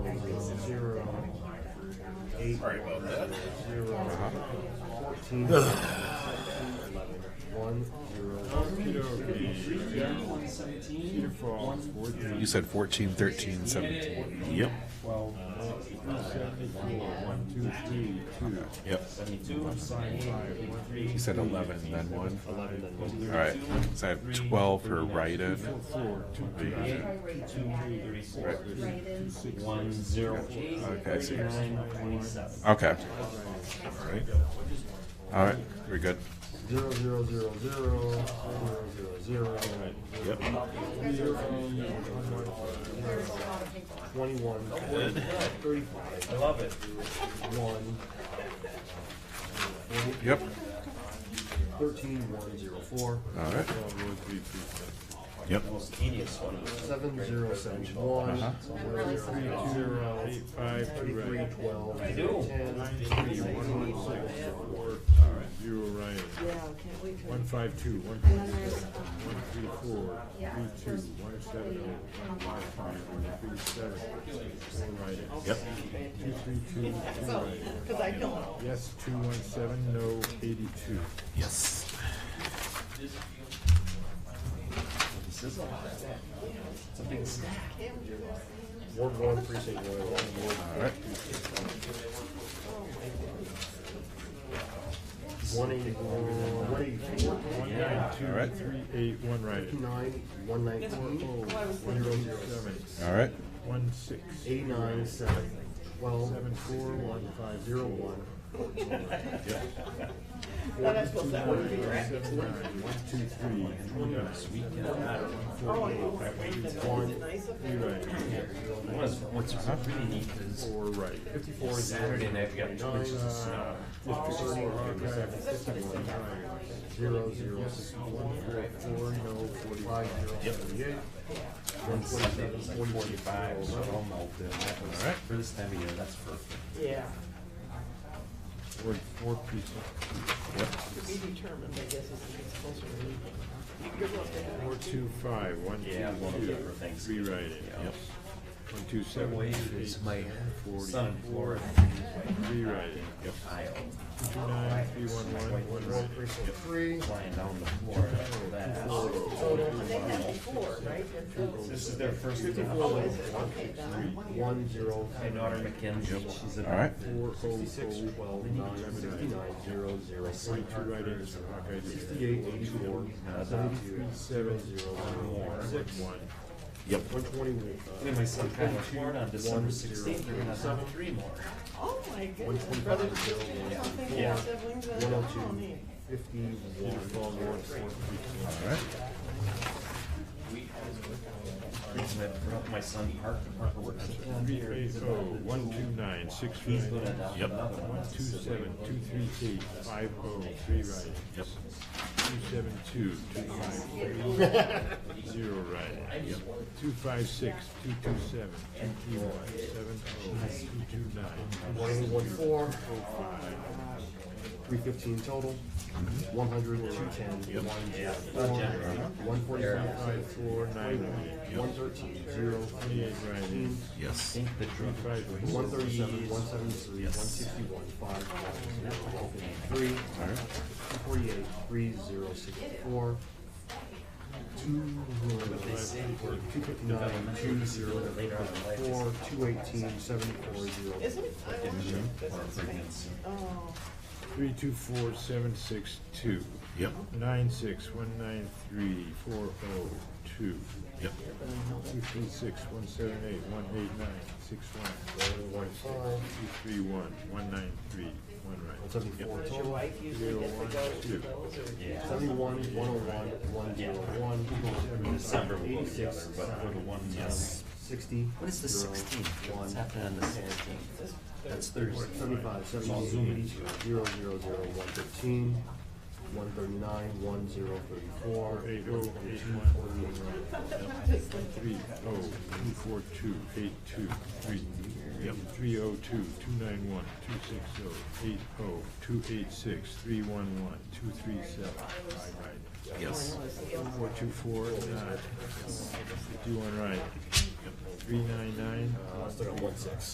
eight. Sorry about that. Zero. Fourteen. Eleven. One. Zero. You said 14, 13, 17. Yep. Twelve. One, two, three, two. Yep. You said 11, then 1. Eleven and one. All right. So I have 12 for right in. One, zero, eight. Okay, I see. Nine, twenty-seven. Okay. All right. All right. We're good. Zero, zero, zero, zero, zero, zero, zero. Yep. Twenty-one. Thirty-five. I love it. One. Yep. Thirteen, one, zero, four. All right. Yep. Seven, zero, seven, one. Uh-huh. Zero, zero, two, zero. Eight, five, thirty-three, twelve. I do. Zero Ryan, Yeah, can't wait till. one five two, one And then three there's, seven, um, one three four, three two, one seven oh, one five five, one three seven, four Ryan. Yep. Two three two, two so, Ryan. cause I don't. Yes, two one seven, no eighty-two. Yes. Ward one, precinct one. Ward All right. One eighty, one eighty-four. One nine All right. two, three eight, one Ryan. Nine, one nineteen. One zero seven, All right. one six, Eighty-nine, seven, twelve, seven four, one five zero, zero, one. That I suppose that would be right. seven nine, one two three, three nine, Oh, I know. Is it nice of three them? Ryan, What's, what's really neat is four Ryan. before Saturday night, we got two inches of snow. Thirty, Archive, fifty-one Ryan. zero, zero, six, one, four, no, forty-five, zero, thirty-eight. One twenty-seven, Forty-five, so all melted. That was, Alright. for this time of year, that's perfect. Yeah, Four, four people. to be determined, I guess, as it gets closer to leaving. You're supposed to have Four, two, five, one, two, Yeah, one of two. them for Thanksgiving. Rewrite it. Yep. One, two, seven, Wait, eight, it's my son in forty-four. Florida, Rewrite it. Yep. Iowa, Two, two, nine, three, one, one, one, right. precinct three. flying down to Florida for that. But they had before, right? This is their first. Oh, adoption. is it? Okay, then. One, zero, My daughter Mackenzie, she's an. All right. four, oh, oh, twelve, nine, sixty-nine, zero, zero, three, Forty-two write-ins for Hawkeye District. sixty-eight, eighty-four, seventy-three, Seven, zero, zero, one, six, one. Yep. one twenty-one. And my son Kyle was born on December sixteenth, they're gonna have three more. Oh, my goodness, brothers and sisters, I think they Yeah. have siblings that One are oh all two, neat. fifty-one, All right. Reason I brought my son Parker, Parker works at the Three, eight, oh, one, two, nine, six, He's right. gonna adopt Yep. another one. One, two, seven, two, three, eight, five, oh, three, right. Yep. Two, seven, two, two, five, three, zero, right. Yep. Two, five, six, two, two, seven, two, three, one, seven, oh, two, two, nine, one, one, four, oh, five. three fifteen total, one hundred, two ten, one, Yeah. four, one forty-five, Five, four, nine, right. one thirteen, zero, Twenty-eight, right. Yes. Think the Two, drug. five, one thirty-seven, one seventy-three, one sixty-one, five, one, zero, one fifty-three, All right. two forty-eight, three, zero, sixty-four, two, two fifty-nine, two, zero, Later on in life, it's four, two eighteen, seventy-four, zero, Isn't it? I wonder if this is like- Oh, Three, two, four, seven, six, two. Yep. Nine, six, one, nine, three, four, oh, two. Yep. Two, three, six, one, seven, eight, one, eight, nine, six, one, seven, one, six, two, three, one, one, nine, three, one, one right. seventy-four does your total. wife usually get to go to those or? Yeah. Seventy-one, one oh one, one zero one, In December we go together, but for the one, yes. sixty. What is the sixteenth? What's happening on the sixteenth? That's Thursday. Seventy-five, all seventy-eight, zooming. eighty-two, zero, zero, zero, one thirteen, one thirty-nine, one zero thirty-four, Eight, oh, eight, one, forty-eight, three, oh, two, four, two, eight, two, three. Yep. Three, oh, two, two, nine, one, two, six, oh, eight, oh, two, eight, six, three, one, one, two, three, seven, five, right. Yes. Four, two, four, uh, nine, fifty-one, right. Three, nine, nine, uh, still got one six.